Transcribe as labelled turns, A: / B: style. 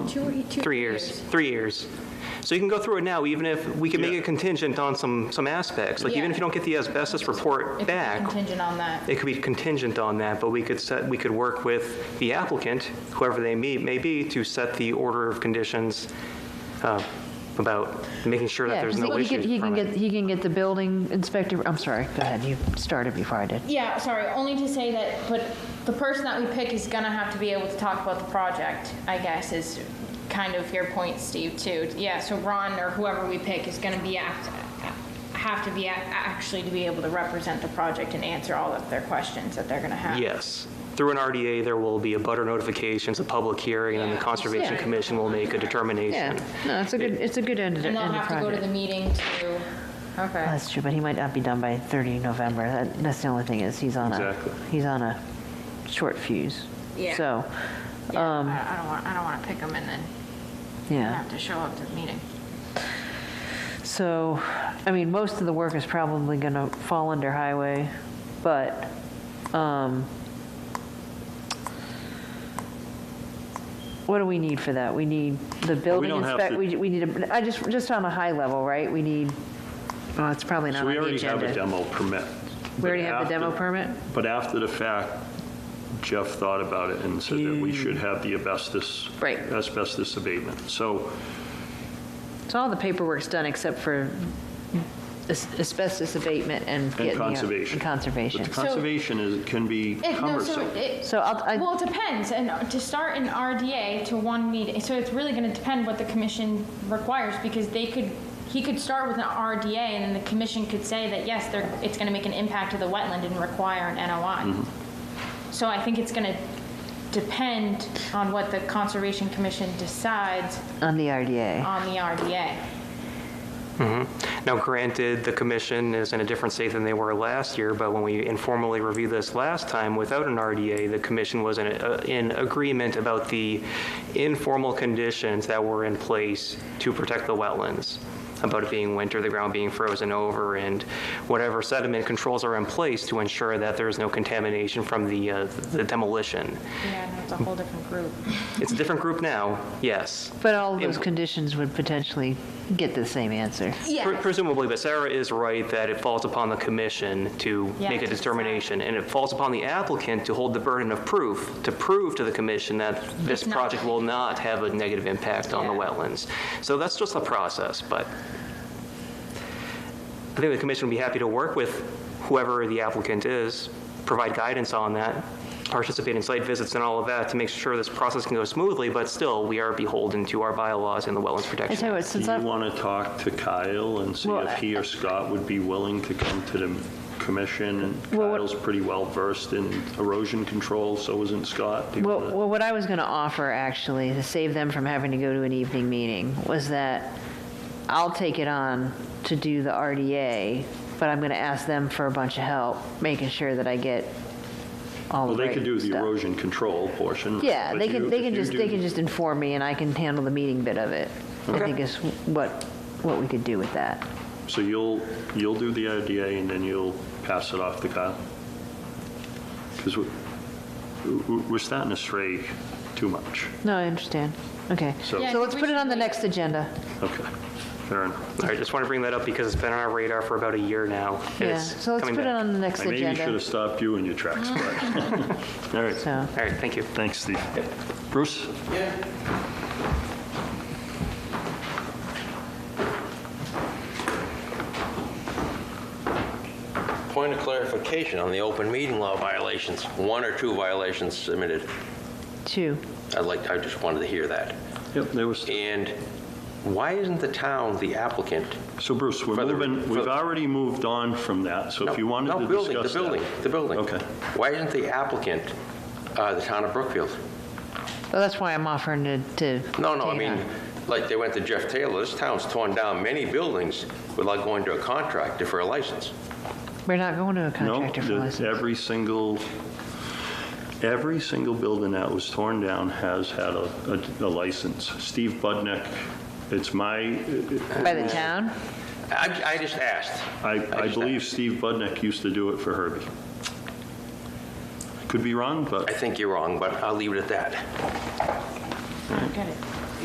A: two, or- two.
B: Three years, three years. So you can go through it now, even if, we can make it contingent on some, some aspects. Like even if you don't get the asbestos report
A: If it's
B: back,
A: contingent on that.
B: it could be contingent on that, but we could set, we could work with the applicant, whoever they may, may be, to set the order of conditions uh, about making sure that
C: Yeah,
B: there's
C: 'cause
B: no
C: he can-
B: issues
C: he can
B: from it.
C: get, he can get the building inspector, I'm sorry, go ahead, you started before I did.
A: Yeah, sorry, only to say that, but the person that we pick is gonna have to be able to talk about the project, I guess, is kind of your point, Steve, too. Yeah, so Ron or whoever we pick is gonna be act, have to be ac- actually to be able to represent the project and answer all of their questions that they're gonna have.
B: Yes. Through an RDA, there will be a butter notifications, a public hearing, and then the Conservation
C: Yeah.
B: Commission will make a
C: Yeah,
B: determination.
C: no, it's a good, it's a good end of the
A: And they'll
C: end of
A: have to go to the
C: project.
A: meeting to, okay.
C: That's true, but he might not be done by 30 November, that, that's the only thing is, he's on a,
B: Exactly.
C: he's on a short fuse.
A: Yeah.
C: So,
A: Yeah, I I don't want, I don't wanna pick them and then
C: Um, yeah.
A: have to show up to the meeting.
C: So, I mean, most of the work is probably going to fall under highway, but, um, what do we need for that? We need the building
D: don't have
C: inspect,
D: to-
C: we, we need, a- I just, just on a high level, right? We need, well, it's probably not on
D: So we
C: the
D: already have a
C: agenda.
D: demo permit.
C: We already have the
D: But
C: demo
D: after-
C: permit?
D: But after the fact, Jeff thought about it and said that we should have the asbestos.
C: Right.
D: Asbestos abatement. So
C: So all the paperwork's done except for as- asbestos abatement and. getting
D: And
C: the- uh,
D: conservation.
C: And conservation.
D: But the conservation is, can be
A: It, no, so
D: cumbersome.
A: it,
C: So I'll, I.
A: Well, it depends, and to start an RDA to one meeting, so it's really gonna depend what the commission requires, because they could, he could start with an RDA, and then the commission could say that, yes, they're, it's gonna make an impact to the wetland and require an NOI. So I think it's gonna depend on what the Conservation Commission decides
C: on the RDA.
A: on the RDA.
B: Now, granted, the commission is in a different state than they were last year, but when we informally reviewed this last time without an RDA, the commission was in, uh, in agreement about the informal conditions that were in place to protect the wetlands, about it being winter, the ground being frozen over, and whatever sediment controls are in place to ensure that there is no contamination from the, uh, the demolition.
A: Yeah, no, it's a whole different group.
B: It's a different group now, yes.
C: But all those
B: Im-
C: conditions would potentially get the same answer.
B: Pre- Presumably, but Sarah is right that it falls upon the commission to
A: Yeah,
B: make a
A: to decide.
B: determination, and it falls upon the applicant to hold the burden of proof, to prove to the commission that this
A: It's not-
B: project will not have a negative impact on the
A: Yeah.
B: wetlands. So that's just the process, but I think the commission would be happy to work with whoever the applicant is, provide guidance on that, participate in site visits and all of that to make sure this process can go smoothly, but still, we are beholden to our bylaws and the Wetlands
C: I
B: Protection
C: tell you what,
B: Act.
D: Do
C: since
D: you
C: I've,
D: want to talk to Kyle and see
C: Well,
D: if he or Scott would be willing to come to the commission? And
C: Well, what-
D: Kyle's pretty well versed in erosion control, so isn't Scott. Do you
C: well,
D: wanna-
C: well, what I was going to offer actually to save them from having to go to an evening meeting was that I'll take it on to do the RDA, but I'm going to ask them for a bunch of help, making sure that I get all
D: Well,
C: the
D: they could
C: right
D: do the
C: stuff.
D: erosion control portion.
C: Yeah,
D: but
C: they
D: you-
C: can, they
D: if
C: can
D: you
C: just,
D: do
C: they can just inform me and I can handle the meeting bit of it. I think is what, what we could do with that.
D: So you'll, you'll do the IDA and then you'll pass it off to Kyle? Because we're starting to stray too much.
C: No, I understand. Okay.
D: So- Yeah, I
C: So
A: think
C: let's
A: we
C: put it
A: should
C: on the
A: wait.
C: next agenda.
D: Okay, fair enough.
B: I just want to bring that up because it's been on our radar for about a year now. and
C: Yeah,
B: it's
C: so let's
B: coming
C: put it
B: back.
C: on the next
D: I maybe should
C: agenda.
D: have stopped you in your tracks, but, all right.
C: So,
B: All right, thank you.
D: Thanks, Steve. Bruce?
E: Point of clarification on the open meeting law violations, one or two violations submitted.
C: two.
E: I'd like, I just wanted to hear that.
D: Yep, there was,
E: And why isn't the town the applicant?
D: so Bruce, we're
E: For the-
D: moving,
E: for-
D: we've already moved on from that, so
E: No,
D: if you wanted
E: no,
D: to
E: building,
D: discuss that.
E: The building, the building.
D: Okay.
E: Why isn't the applicant uh, the town of Brookfield?
C: Well, that's why I'm offering to, to.
E: No, no, I
C: take it on.
E: mean, like they went to Jeff Taylor, this town's torn down many buildings without going to a contractor for a license.
C: We're not going to a contractor for
D: No, the-
C: license.
D: every single, every single building that was torn down has had a, a- a license. Steve Budnick, it's my,
C: By the town?
E: I, I just asked.
D: I, I
E: just
D: believe
E: asked.
D: Steve Budnick used to do it for Herbie. Could be wrong,
E: I
D: but
E: think you're wrong, but I'll leave it at that.
A: Get it.